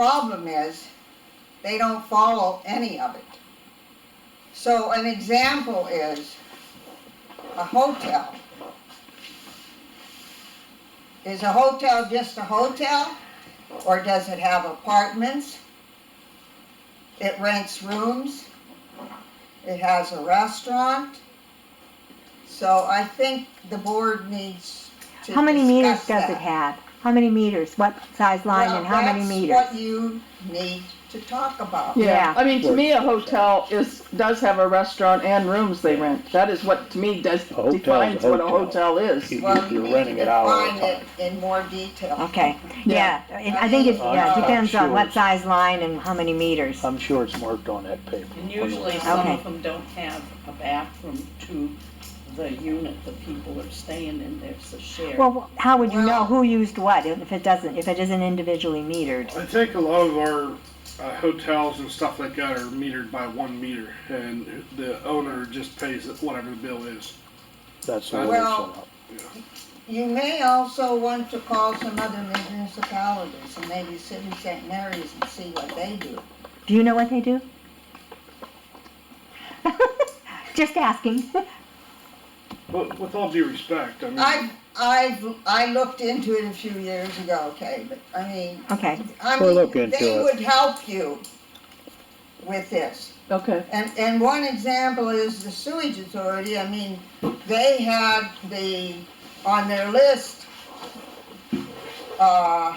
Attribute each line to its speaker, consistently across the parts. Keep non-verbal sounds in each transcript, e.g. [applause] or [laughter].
Speaker 1: problem is, they don't follow any of it. So an example is, a hotel. Is a hotel just a hotel, or does it have apartments? It rents rooms, it has a restaurant. So I think the board needs to
Speaker 2: How many meters
Speaker 1: discuss
Speaker 2: does
Speaker 1: that.
Speaker 2: it have? How many meters? What size line and how many
Speaker 1: Well,
Speaker 2: meters?
Speaker 1: that's what you need to talk about.
Speaker 2: Yeah.
Speaker 3: Yeah, I mean, to me, a hotel is, does have a restaurant and rooms they rent. That is what, to me, does,
Speaker 4: hotel's a
Speaker 3: defines what a
Speaker 4: hotel.
Speaker 3: hotel is.
Speaker 4: You-
Speaker 1: Well, you
Speaker 4: You're
Speaker 1: need
Speaker 4: renting
Speaker 1: to
Speaker 4: it out all the
Speaker 1: define it
Speaker 4: time.
Speaker 1: in more detail.
Speaker 2: Okay, yeah,
Speaker 3: Yeah.
Speaker 2: it- I think it,
Speaker 1: I'm
Speaker 2: yeah,
Speaker 1: not
Speaker 2: depends on
Speaker 4: sure.
Speaker 2: what size line and how many meters.
Speaker 4: I'm sure it's marked on that paper.
Speaker 5: And usually some
Speaker 2: Okay.
Speaker 5: of them don't have a bathroom to the unit the people are staying in, there's a shared.
Speaker 2: Well, wh- how would you know
Speaker 1: Well-
Speaker 2: who used what if it doesn't, if it isn't individually metered?
Speaker 6: I think a lot of our uh, hotels and stuff like that are metered by one meter, and the owner just pays whatever the bill is.
Speaker 4: That's the way it's
Speaker 1: Well-
Speaker 4: set up.
Speaker 1: You may also want to call some other municipalities and maybe City St. Mary's and see what they do.
Speaker 2: Do you know what they do? [laughs] Just asking. [laughs]
Speaker 6: But with all due respect, I mean,
Speaker 1: I've, I've, I looked into it a few years ago, okay, but I mean,
Speaker 2: Okay,
Speaker 1: I
Speaker 4: We'll look
Speaker 1: mean,
Speaker 4: into
Speaker 1: they
Speaker 4: it.
Speaker 1: would help you with this.
Speaker 3: Okay,
Speaker 1: And, and one example is the sewage authority, I mean, they had the, on their list, uh,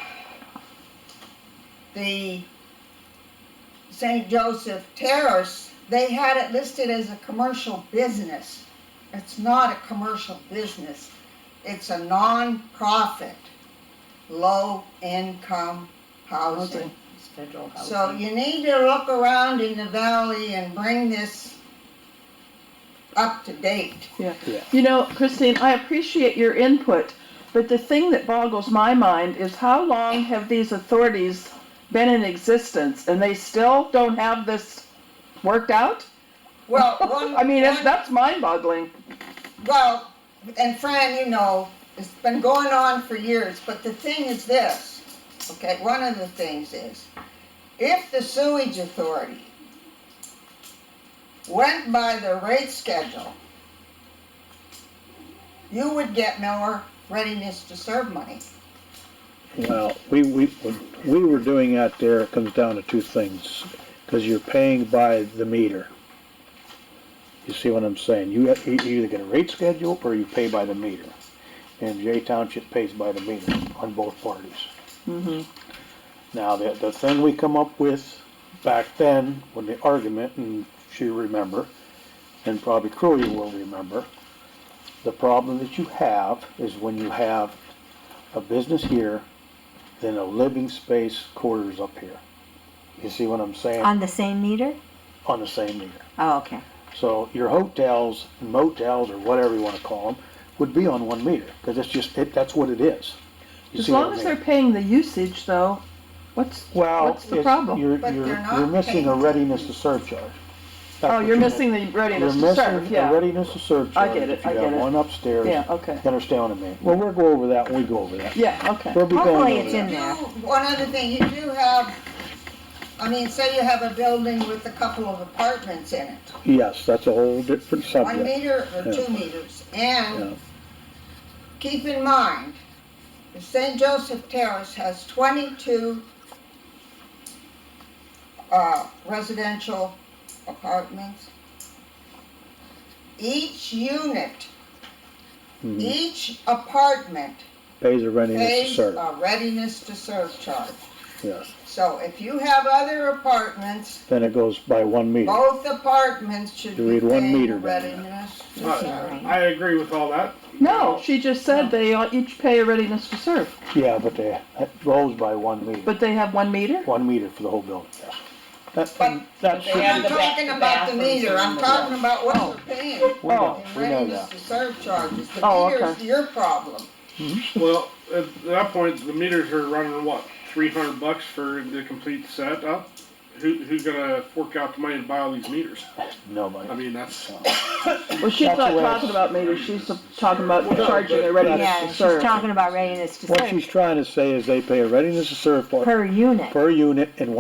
Speaker 1: the St. Joseph Terrace, they had it listed as a commercial business. It's not a commercial business, it's a non-profit, low-income housing.
Speaker 5: housing, it's federal
Speaker 1: So
Speaker 5: housing.
Speaker 1: you need to look around in the valley and bring this up to date.
Speaker 3: you know, Christine, I appreciate your input, but the thing that boggles my mind is how long have these authorities been in existence and they still don't have this worked out?
Speaker 1: Well, one,
Speaker 3: [laughs] I mean, it's,
Speaker 1: one-
Speaker 3: that's mind boggling.
Speaker 1: well, and Fran, you know, it's been going on for years, but the thing is this, okay, one of the things is, if the sewage authority went by the rate schedule, you would get more readiness to serve money.
Speaker 4: Well, we, we, when we were doing that there, it comes down to two things, because you're paying by the meter. You see what I'm saying? You, have- you either get a rate schedule or you pay by the meter. And Jay Township pays by the meter on both parties. Mm-hmm.
Speaker 3: Mhm.
Speaker 4: Now, the, the thing we come up with back then, when the argument, and she remember, and probably Crowley will remember, the problem that you have is when you have a business here, then a living space quarters up here. You see what I'm saying?
Speaker 2: on the same meter?
Speaker 4: On the same meter.
Speaker 2: Oh, okay,
Speaker 4: So your hotels, motels, or whatever you want to call them, would be on one meter, because it's just, it, that's what it is. You
Speaker 3: As
Speaker 4: see what
Speaker 3: long
Speaker 4: I
Speaker 3: as
Speaker 4: mean?
Speaker 3: they're paying the usage though, what's,
Speaker 4: Well,
Speaker 3: what's the
Speaker 4: it's-
Speaker 3: problem?
Speaker 4: You're,
Speaker 1: But
Speaker 4: you're,
Speaker 1: they're not
Speaker 4: you're missing a
Speaker 1: paying.
Speaker 4: readiness to serve charge. That's
Speaker 3: Oh,
Speaker 4: what
Speaker 3: you're
Speaker 4: mi-
Speaker 3: missing the readiness to
Speaker 4: You're
Speaker 3: serve,
Speaker 4: missing a
Speaker 3: yeah,
Speaker 4: readiness to serve
Speaker 3: I
Speaker 4: charge
Speaker 3: get it,
Speaker 4: if you
Speaker 3: I get
Speaker 4: have
Speaker 3: it.
Speaker 4: one upstairs.
Speaker 3: yeah, okay,
Speaker 4: You Understand what I mean? Well, we'll go over that when we go over that.
Speaker 3: yeah, okay.
Speaker 4: We'll be going
Speaker 2: Hopefully
Speaker 4: over
Speaker 2: it's
Speaker 4: that.
Speaker 2: in there.
Speaker 1: do- one other thing, you do have, I mean, say you have a building with a couple of apartments in it,
Speaker 4: Yes, that's a whole different
Speaker 1: one
Speaker 4: subject.
Speaker 1: meter or
Speaker 4: Yeah.
Speaker 1: two meters,
Speaker 4: Yeah.
Speaker 1: and keep in mind, the St. Joseph Terrace has twenty-two uh, residential apartments. Each unit,
Speaker 4: Mhm.
Speaker 1: each apartment
Speaker 4: Pays a readiness to
Speaker 1: pays
Speaker 4: serve,
Speaker 1: a readiness to serve charge.
Speaker 4: yes.
Speaker 1: So if you have other apartments,
Speaker 4: Then it goes by one meter.
Speaker 1: Both apartments should be
Speaker 4: You read one
Speaker 1: paying
Speaker 4: meter
Speaker 1: a
Speaker 4: down there.
Speaker 1: readiness.
Speaker 6: I, I agree with all that.
Speaker 3: No, she just said they all each pay a readiness to serve,
Speaker 4: Yeah, but they, it goes by one meter,
Speaker 3: but they have one meter?
Speaker 4: one meter for the whole building, yes. That-
Speaker 1: But-
Speaker 4: that
Speaker 5: they
Speaker 4: should
Speaker 5: have
Speaker 1: I'm
Speaker 4: be-
Speaker 5: the ba-
Speaker 1: talking about the
Speaker 5: bathrooms
Speaker 1: meter,
Speaker 5: and
Speaker 1: I'm
Speaker 5: the-
Speaker 1: talking about what you're paying
Speaker 4: We know,
Speaker 1: in
Speaker 4: we know
Speaker 1: readiness
Speaker 4: that.
Speaker 1: to serve charges. The
Speaker 3: Oh,
Speaker 1: meter's
Speaker 3: okay.
Speaker 1: your problem.
Speaker 6: Well, at that point, the meters are running what three hundred bucks for the complete setup, who, who's gonna fork out the money to buy all these meters? I
Speaker 4: nobody.
Speaker 6: mean, that's,
Speaker 3: Well, she's
Speaker 4: That's
Speaker 3: not
Speaker 4: the way-
Speaker 3: talking about meters, she's talking about
Speaker 6: Well,
Speaker 3: charging a readiness
Speaker 2: Yeah,
Speaker 3: to
Speaker 2: she's
Speaker 3: serve.
Speaker 2: talking about readiness to
Speaker 4: What
Speaker 2: serve
Speaker 4: she's trying to say is they pay a readiness to serve part
Speaker 2: per unit.
Speaker 4: per unit and one